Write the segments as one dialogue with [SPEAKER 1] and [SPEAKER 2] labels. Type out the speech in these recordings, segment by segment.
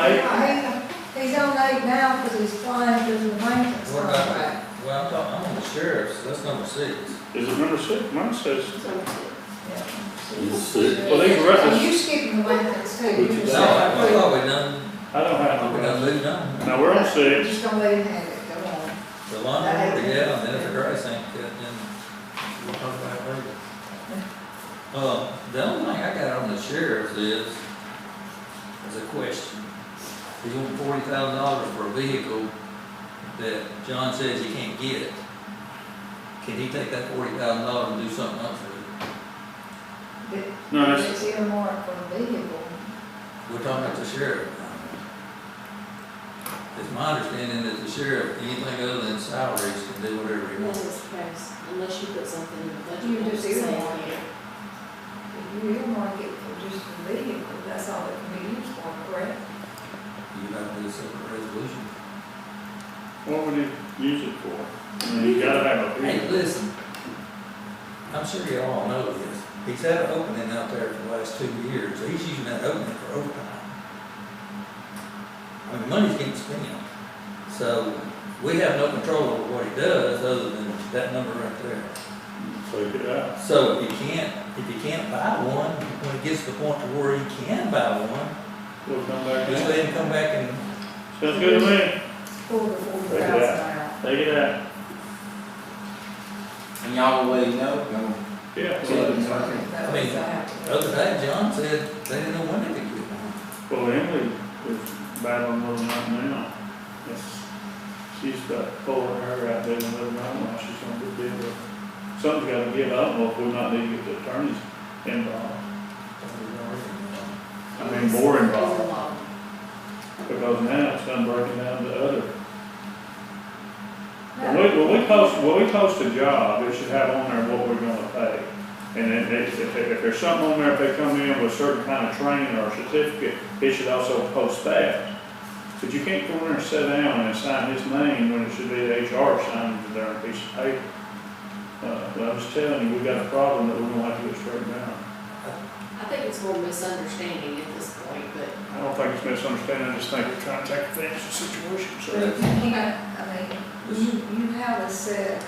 [SPEAKER 1] late?
[SPEAKER 2] He- He's on eight now because he's flying through the maintenance
[SPEAKER 3] What about
[SPEAKER 2] contract.
[SPEAKER 3] that? Well, I'm talking, I'm on the sheriff's, that's number six.
[SPEAKER 1] Is it number six? Mine says,
[SPEAKER 2] Yeah.
[SPEAKER 1] well, these
[SPEAKER 2] Are
[SPEAKER 1] records,
[SPEAKER 2] you skipping the maintenance too?
[SPEAKER 1] Which
[SPEAKER 2] You're
[SPEAKER 1] is
[SPEAKER 2] just
[SPEAKER 3] No, I
[SPEAKER 2] saying,
[SPEAKER 3] thought we done,
[SPEAKER 1] I don't
[SPEAKER 3] I thought
[SPEAKER 1] have
[SPEAKER 3] we
[SPEAKER 1] them.
[SPEAKER 3] done moved on.
[SPEAKER 1] Now, we're on
[SPEAKER 2] "You're
[SPEAKER 1] six.
[SPEAKER 2] Just gonna let him have it, go on.
[SPEAKER 3] The lawnmower, yeah, and then if the grass ain't cut, then we'll talk about it later. Uh, the only thing I got on the sheriff's is, is a question. He's on forty thousand dollars for a vehicle that John says he can't get. Can he take that forty thousand dollars and do something else with it?
[SPEAKER 2] But
[SPEAKER 1] No, that's,
[SPEAKER 2] It's earmarked for the vehicle.
[SPEAKER 3] We're talking about the sheriff. It's my understanding that the sheriff, anything other than salaries, can do whatever he
[SPEAKER 4] Unless
[SPEAKER 3] wants.
[SPEAKER 4] it's passed, unless you put something in the budget.
[SPEAKER 2] You just
[SPEAKER 4] saying
[SPEAKER 2] earmark
[SPEAKER 4] it.
[SPEAKER 2] it. If you earmark it for just the vehicle, that's all it can be used for, correct?
[SPEAKER 3] You have to do a separate resolution.
[SPEAKER 1] what would you use it for? I mean, You gotta have a
[SPEAKER 3] Hey,
[SPEAKER 1] reason.
[SPEAKER 3] listen, I'm sure you all know this, he's had an opening out there for the last two years, he's using that opening for overtime. I mean, money's getting spent, so we have no control over what he does, other than that number right there.
[SPEAKER 1] Take it out.
[SPEAKER 3] So if he can't, if he can't buy one, when it gets to the point to where he can buy one,
[SPEAKER 1] We'll come back
[SPEAKER 3] just
[SPEAKER 1] in.
[SPEAKER 3] let him come back and,
[SPEAKER 1] Sounds good to me.
[SPEAKER 2] Four to forty
[SPEAKER 1] Take it
[SPEAKER 2] thousand out.
[SPEAKER 1] Take it out.
[SPEAKER 5] And y'all will let him know?
[SPEAKER 1] Yeah.
[SPEAKER 5] Yeah.
[SPEAKER 1] well,
[SPEAKER 2] That
[SPEAKER 3] I
[SPEAKER 2] was
[SPEAKER 3] mean,
[SPEAKER 2] that.
[SPEAKER 3] the other day, John said, they didn't know when they could get one.
[SPEAKER 1] Well, Emily is battling with them right now. It's- She's got four of her out there in the living room, now she's gonna get deal with. Something's gotta give up, or if we're not need to get the attorneys involved. I mean, more
[SPEAKER 4] It's a
[SPEAKER 1] involved.
[SPEAKER 4] lot.
[SPEAKER 1] Because now it's done breaking down to other. When we, when we post, when we post a job, it should have on there what we're gonna pay. And then if, if, if there's something on there, if they come in with a certain kind of training or certificate, it should also post that. But you can't go in there and sit down and sign his name when it should be the HR signing it there on a piece of paper. Uh, but I'm just telling you, we got a problem that we're gonna have to get straightened out.
[SPEAKER 4] I think it's more misunderstanding at this point, but
[SPEAKER 1] I don't think it's misunderstanding, I just think we're trying to take advantage of the situation,
[SPEAKER 2] But
[SPEAKER 1] so.
[SPEAKER 2] you can't, I mean, you, you have a set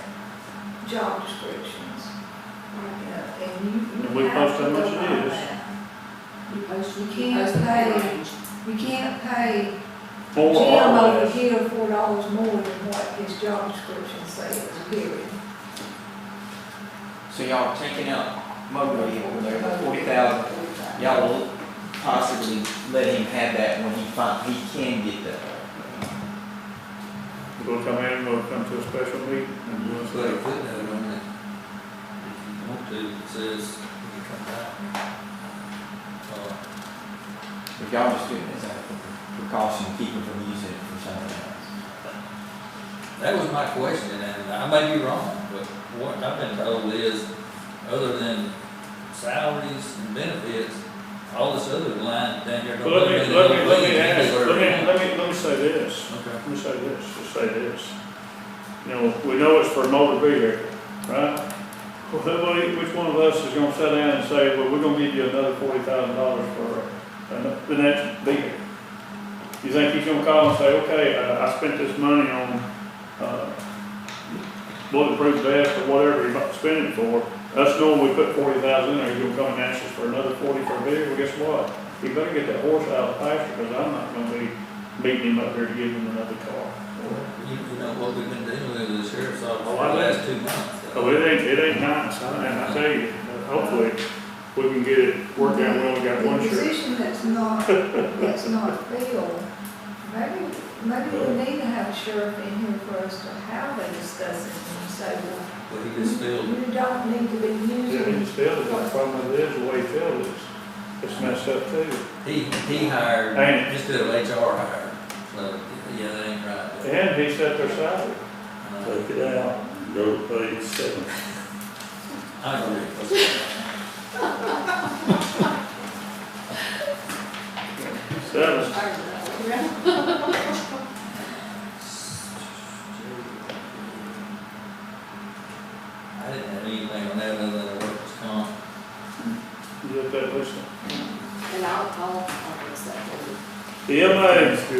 [SPEAKER 2] job descriptions. you know, And you.
[SPEAKER 1] And we
[SPEAKER 2] have
[SPEAKER 1] post
[SPEAKER 2] to
[SPEAKER 1] how much
[SPEAKER 2] go
[SPEAKER 1] it
[SPEAKER 2] by
[SPEAKER 1] is.
[SPEAKER 2] that.
[SPEAKER 4] you post, you
[SPEAKER 2] Can't
[SPEAKER 4] post the
[SPEAKER 2] pay.
[SPEAKER 4] range.
[SPEAKER 2] You can't pay
[SPEAKER 1] Four
[SPEAKER 2] Jim
[SPEAKER 1] or
[SPEAKER 2] over
[SPEAKER 1] less.
[SPEAKER 2] here four dollars more than what his job description says, period.
[SPEAKER 5] So y'all taking out motorway over there, forty thousand, y'all will possibly let him have that when he fin, he can get that.
[SPEAKER 1] We'll come in, we'll come to a special meeting and we'll
[SPEAKER 3] Just put a footnote on it. If you want to, it says, you can come back. Uh,
[SPEAKER 5] But y'all just doing this out of precaution, keep him from using it for something else.
[SPEAKER 3] That was my question, and I may be wrong, but what I've been told is, other than salaries and benefits, all this other line down here. don't
[SPEAKER 1] Well, let
[SPEAKER 3] really
[SPEAKER 1] me, let me,
[SPEAKER 3] know
[SPEAKER 1] let
[SPEAKER 3] what
[SPEAKER 1] me
[SPEAKER 3] you
[SPEAKER 1] ask,
[SPEAKER 3] do or-
[SPEAKER 1] let me, let me, let me say this,
[SPEAKER 3] Okay.
[SPEAKER 1] let me say this, just say this. You know, we know it's for motor vehicle, right? Well, who- which one of us is gonna sit down and say, well, we're gonna give you another forty thousand dollars for uh, the next vehicle? You think he's gonna call and say, okay, I, I spent this money on, uh, bulletproof vest or whatever he might spend it for, us knowing we put forty thousand in there, he's gonna come and ask us for another forty for a vehicle, guess what? He better get that horse out of the pasture, because I'm not gonna be beating him up here to give him another car.
[SPEAKER 3] You, you know, what we've been dealing with is the sheriff's office
[SPEAKER 1] Oh,
[SPEAKER 3] for
[SPEAKER 1] I
[SPEAKER 3] the
[SPEAKER 1] know.
[SPEAKER 3] last two months.
[SPEAKER 1] So Oh, it ain't, it ain't nice, I- and I tell you, hopefully, we can get it worked out, we only got
[SPEAKER 2] The
[SPEAKER 1] one shirt.
[SPEAKER 2] position that's not, that's not filled, maybe, maybe we need to have a sheriff in here for us to have a discussion and say, well,
[SPEAKER 3] But he just filled,
[SPEAKER 2] you don't need to be
[SPEAKER 1] Yeah, he
[SPEAKER 2] using.
[SPEAKER 1] just filled it, the problem is, the way he filled it, it's messed up too.
[SPEAKER 3] he, he hired,
[SPEAKER 1] Ain't
[SPEAKER 3] just did a HR hire, so, yeah, that ain't right.
[SPEAKER 1] And he set their salary.
[SPEAKER 3] Uh,
[SPEAKER 6] Take it out, go to page seven.
[SPEAKER 3] I agree.
[SPEAKER 1] Seven.
[SPEAKER 4] I don't know.
[SPEAKER 3] I didn't have anything on that other than the workers' comp.
[SPEAKER 1] You get that, listen.
[SPEAKER 4] And I'll, I'll, I'll post that.
[SPEAKER 1] The E M Amen.